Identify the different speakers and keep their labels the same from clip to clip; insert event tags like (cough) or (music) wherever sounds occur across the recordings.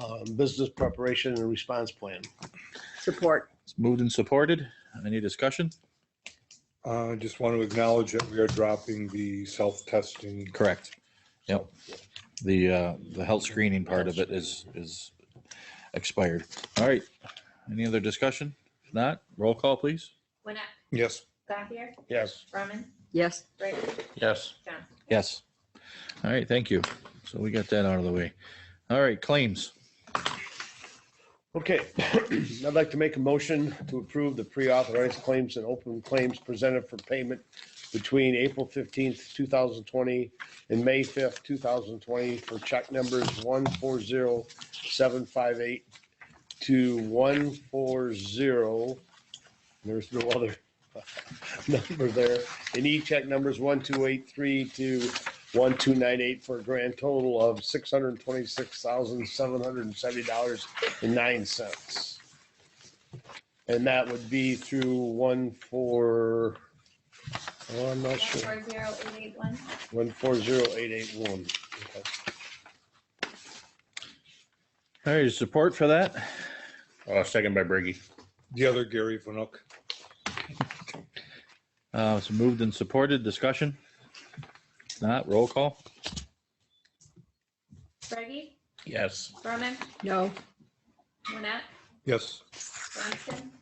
Speaker 1: um, business preparation and response plan.
Speaker 2: Support.
Speaker 3: It's moved and supported. Any discussion?
Speaker 4: I Uh, just want to acknowledge that we are dropping the self-testing.
Speaker 3: Correct. Yep. The, uh, the health screening part of it is, is expired. All right. Any other discussion? If not, roll call, please.
Speaker 5: Winnet,
Speaker 4: Yes,
Speaker 5: Gothier,
Speaker 1: Yes.
Speaker 5: Brumman,
Speaker 2: Yes.
Speaker 5: Brady,
Speaker 6: yes,
Speaker 5: Johnson.
Speaker 3: Yes. All right, thank you. So we got that out of the way. All right, claims.
Speaker 1: Okay, (clears throat) I'd like to make a motion to approve the pre-authorized claims and open claims presented for payment between April 15th, 2020 and May 5th, 2020 for check numbers 140758 to 140, there's no other (laughs) number there. And e-check numbers 1283 to 1298 for a grand total of $626,770 and nine cents. And that would be through one four, oh, I'm not sure,
Speaker 5: 140881.
Speaker 1: one four zero eight eight one.
Speaker 3: All right, support for that?
Speaker 6: uh, second by Brady.
Speaker 4: the other Gary Vanuk.
Speaker 3: Uh, it's moved and supported. Discussion? If Not, roll call?
Speaker 5: Brady,
Speaker 6: yes,
Speaker 5: Brumman,
Speaker 2: No.
Speaker 5: Winnet,
Speaker 4: Yes,
Speaker 5: Johnson,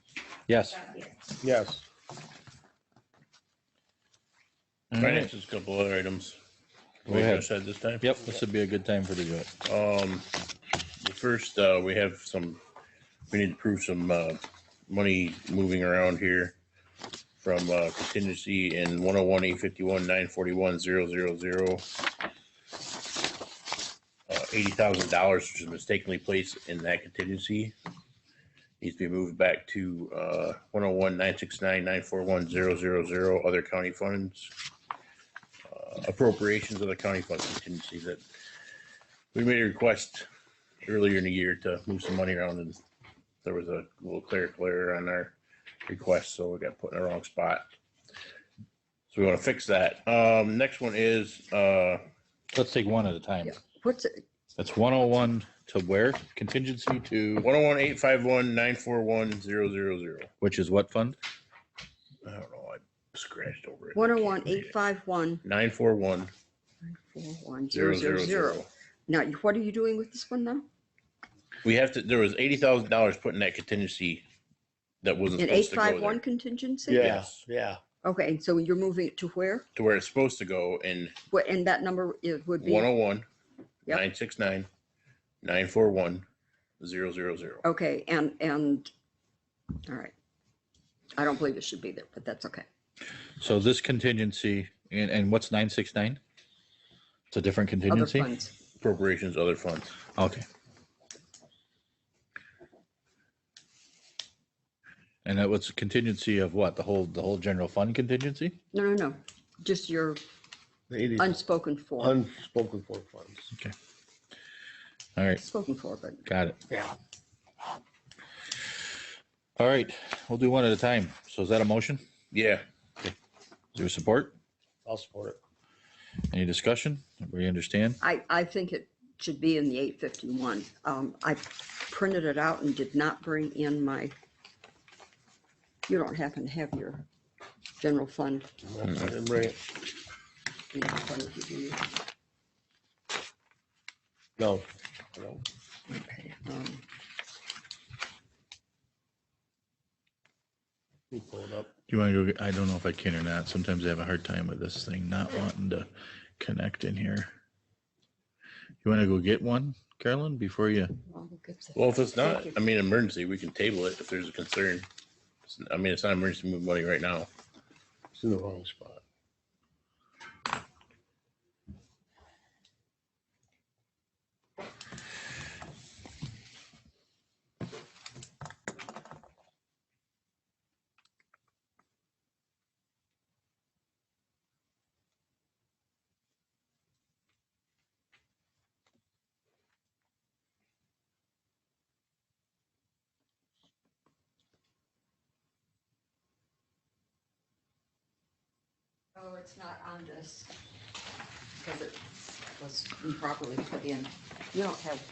Speaker 3: Yes.
Speaker 5: Gothier.
Speaker 1: Yes,
Speaker 3: All right.
Speaker 6: finance is a couple other items.
Speaker 3: Go ahead.
Speaker 6: Commissioner said this time.
Speaker 3: Yep, this would be a good time for to do it.
Speaker 6: Um, the first, uh, we have some, we need to prove some, uh, money moving around here from, uh, contingency in one oh one, eight fifty-one, nine forty-one, zero, zero, zero. Uh, eighty thousand dollars which is mistakenly placed in that contingency. Needs to be moved back to, uh, one oh one, nine six nine, nine four one, zero, zero, zero, other county funds. Uh, Appropriations of the county fund contingency that we made a request earlier in the year to move some money around and there was a little clerical error on our request, so we got put in the wrong spot. So we want to fix that. Um, next one is, uh,
Speaker 3: Let's take one at a time.
Speaker 2: Yeah. What's, it?
Speaker 3: That's 101 to where? Contingency to,
Speaker 6: one oh one eight five one nine four one zero zero zero.
Speaker 3: which is what fund?
Speaker 6: I don't know, I scratched over it.
Speaker 2: 101 851
Speaker 6: Nine four one zero zero zero.
Speaker 2: Now, what are you doing with this one now?
Speaker 6: We have to, there was eighty thousand dollars put in that contingency that wasn't
Speaker 2: An
Speaker 6: supposed to go
Speaker 2: 851
Speaker 6: there.
Speaker 2: contingency?
Speaker 1: yeah,
Speaker 6: Yes.
Speaker 1: yeah,
Speaker 2: Okay, and so you're moving it to where?
Speaker 6: To where it's supposed to go and
Speaker 2: What, and that number it would be?
Speaker 6: 101,
Speaker 2: Yep.
Speaker 6: 969, 941, 000.
Speaker 2: Okay, and, and, all right. I don't believe it should be there, but that's okay.
Speaker 3: So this contingency, and, and what's 969? It's a different
Speaker 2: Other
Speaker 3: contingency?
Speaker 2: funds.
Speaker 6: Appropriations, other funds.
Speaker 3: Okay. And that was contingency of what? The whole, the whole general fund contingency?
Speaker 2: No, no, no, just your
Speaker 1: Eighty-
Speaker 2: unspoken for,
Speaker 1: unspoken for funds.
Speaker 3: All right,
Speaker 2: spoken for, but
Speaker 3: got it.
Speaker 1: Yeah.
Speaker 3: All right, we'll do one at a time. So is that a motion?
Speaker 6: Yeah,
Speaker 3: Is there support?
Speaker 1: I'll support it.
Speaker 3: Any discussion? We understand?
Speaker 2: I, I think it should be in the eight fifty-one. Um, I printed it out and did not bring in my, you don't happen to have your general fund
Speaker 1: I didn't bring it.
Speaker 2: in front of you, do you?
Speaker 1: No. No.
Speaker 2: Okay, um,
Speaker 1: You pull it up.
Speaker 3: Do you want to go? I don't know if I can or not. Sometimes I have a hard time with this thing not wanting to connect in here. You want to go get one, Carolyn, before you?
Speaker 2: well, we'll get to-
Speaker 6: well, if it's not,
Speaker 2: Thank you.
Speaker 6: I mean, emergency, we can table it if there's a concern. It's- I mean, it's not emergency to move money right now.
Speaker 1: It's in the wrong spot.
Speaker 2: Oh, it's not on this, because it was improperly put in. You don't have